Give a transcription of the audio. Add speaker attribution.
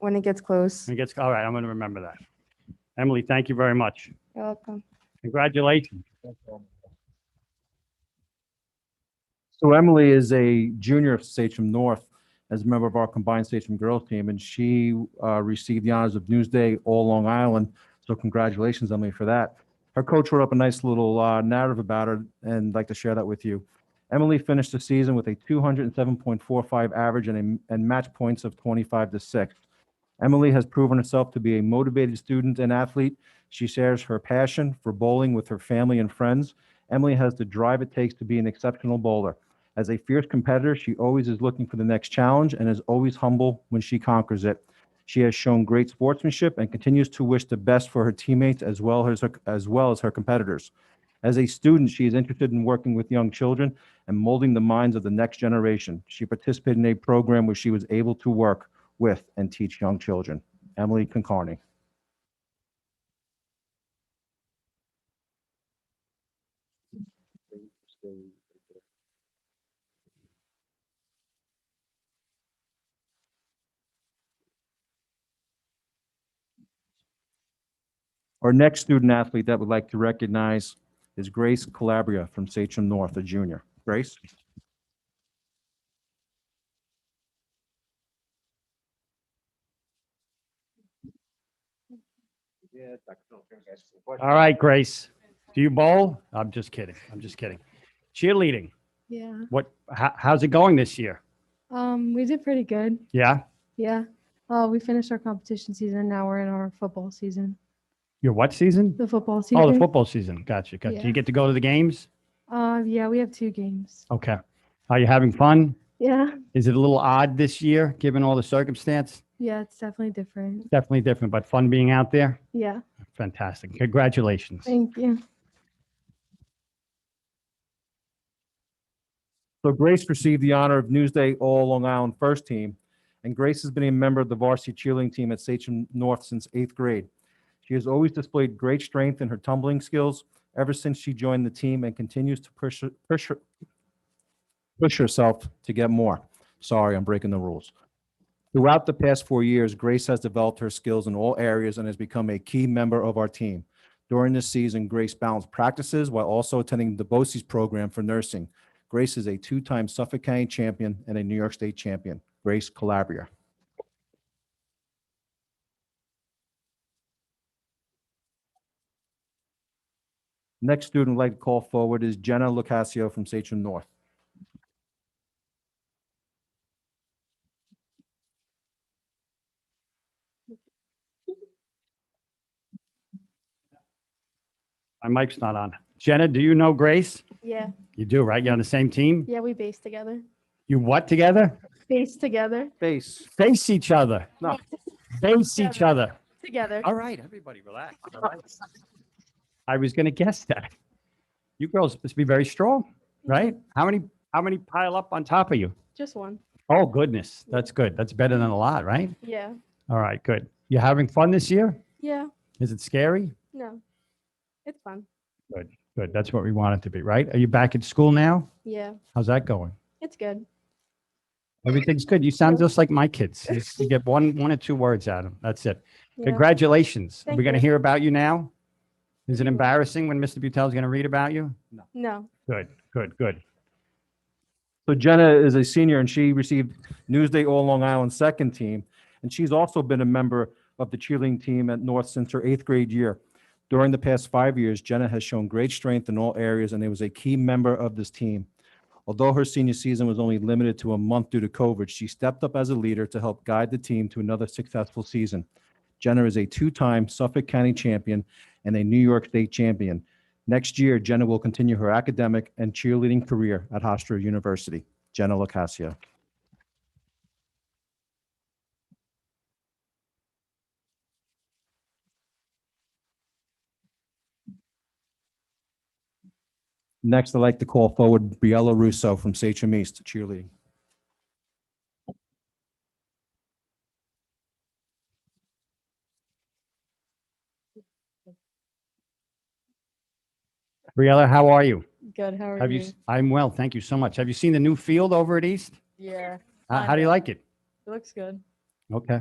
Speaker 1: when it gets close.
Speaker 2: It gets, all right, I'm going to remember that. Emily, thank you very much.
Speaker 1: You're welcome.
Speaker 2: Congratulations.
Speaker 3: So Emily is a junior of Sachem North as a member of our combined Sachem girls team, and she uh, received the honors of Newsday All Long Island. So congratulations, Emily, for that. Her coach wrote up a nice little uh, narrative about her, and I'd like to share that with you. Emily finished the season with a 207.45 average and, a, and match points of 25 to 6. Emily has proven herself to be a motivated student and athlete. She shares her passion for bowling with her family and friends. Emily has the drive it takes to be an exceptional bowler. As a fierce competitor, she always is looking for the next challenge and is always humble when she conquers it. She has shown great sportsmanship and continues to wish the best for her teammates as well as her, as well as her competitors. As a student, she is interested in working with young children and molding the minds of the next generation. She participated in a program where she was able to work with and teach young children. Emily Concarney. Our next student athlete that would like to recognize is Grace Calabria from Sachem North, a junior. Grace?
Speaker 2: All right, Grace. Do you bowl? I'm just kidding. I'm just kidding. Cheerleading.
Speaker 1: Yeah.
Speaker 2: What, how, how's it going this year?
Speaker 1: Um, we did pretty good.
Speaker 2: Yeah?
Speaker 1: Yeah. Uh, we finished our competition season. Now we're in our football season.
Speaker 2: Your what season?
Speaker 1: The football season.
Speaker 2: Oh, the football season. Gotcha. Gotcha. Do
Speaker 1: Yeah.
Speaker 2: you get to go to the games?
Speaker 1: Uh, yeah, we have two games.
Speaker 2: Okay. Are you having fun?
Speaker 1: Yeah.
Speaker 2: Is it a little odd this year, given all the circumstance?
Speaker 1: Yeah, it's definitely different.
Speaker 2: Definitely different, but fun being out there?
Speaker 1: Yeah.
Speaker 2: Fantastic. Congratulations.
Speaker 1: Thank you.
Speaker 3: So Grace received the honor of Newsday All Long Island First Team, and Grace has been a member of the varsity cheerleading team at Sachem North since eighth grade. She has always displayed great strength in her tumbling skills ever since she joined the team and continues to push, push, her- push herself to get more. Sorry, I'm breaking the rules. Throughout the past four years, Grace has developed her skills in all areas and has become a key member of our team. During this season, Grace balanced practices while also attending the BOCES program for nursing. Grace is a two-time Suffolk County champion and a New York State champion. Grace Calabria. Next student I'd like to call forward is Jenna Lucasio from Sachem North.
Speaker 2: My mic's not on. Jenna, do you know Grace?
Speaker 4: Yeah,
Speaker 2: You do, right? You're on the same team?
Speaker 4: yeah, we base together.
Speaker 2: You what together?
Speaker 4: Base together.
Speaker 3: Face.
Speaker 2: Face each other.
Speaker 3: No.
Speaker 2: Face each other.
Speaker 4: Together.
Speaker 2: All right, everybody relax. All right. I was going to guess that. You girls must be very strong, right? How many, how many pile up on top of you?
Speaker 4: Just one.
Speaker 2: Oh, goodness. That's good. That's better than a lot, right?
Speaker 4: Yeah.
Speaker 2: All right, good. You having fun this year?
Speaker 4: Yeah.
Speaker 2: Is it scary?
Speaker 4: No. It's fun.
Speaker 2: Good. That's what we want it to be, right? Are you back at school now?
Speaker 4: Yeah.
Speaker 2: How's that going?
Speaker 4: It's good.
Speaker 2: Everything's good. You sound just like my kids. You just- You get one, one or two words out of them. That's it.
Speaker 4: Yeah.
Speaker 2: Congratulations. We're
Speaker 4: Thank
Speaker 2: going to
Speaker 4: you.
Speaker 2: hear about you now. Is it embarrassing when Mr. Buttel's going to read about you?
Speaker 4: No.
Speaker 2: Good, good, good.
Speaker 3: So Jenna is a senior and she received Newsday All Long Island second team. And she's also been a member of the cheerleading team at North since her eighth grade year. During the past five years, Jenna has shown great strength in all areas and was a key member of this team. Although her senior season was only limited to a month due to COVID, she stepped up as a leader to help guide the team to another successful season. Jenna is a two-time Suffolk County champion and a New York State champion. Next year, Jenna will continue her academic and cheerleading career at Hofstra University. Jenna Locascio. Next, I'd like to call forward Briella Russo from Sachem East cheerleading.
Speaker 2: Briella, how are you?
Speaker 1: Good. How are
Speaker 2: Have you, s- I'm well, thank you so much. Have you seen the new field over at East?
Speaker 1: Yeah,
Speaker 2: How, how do you like it?
Speaker 1: it looks good.
Speaker 2: Okay.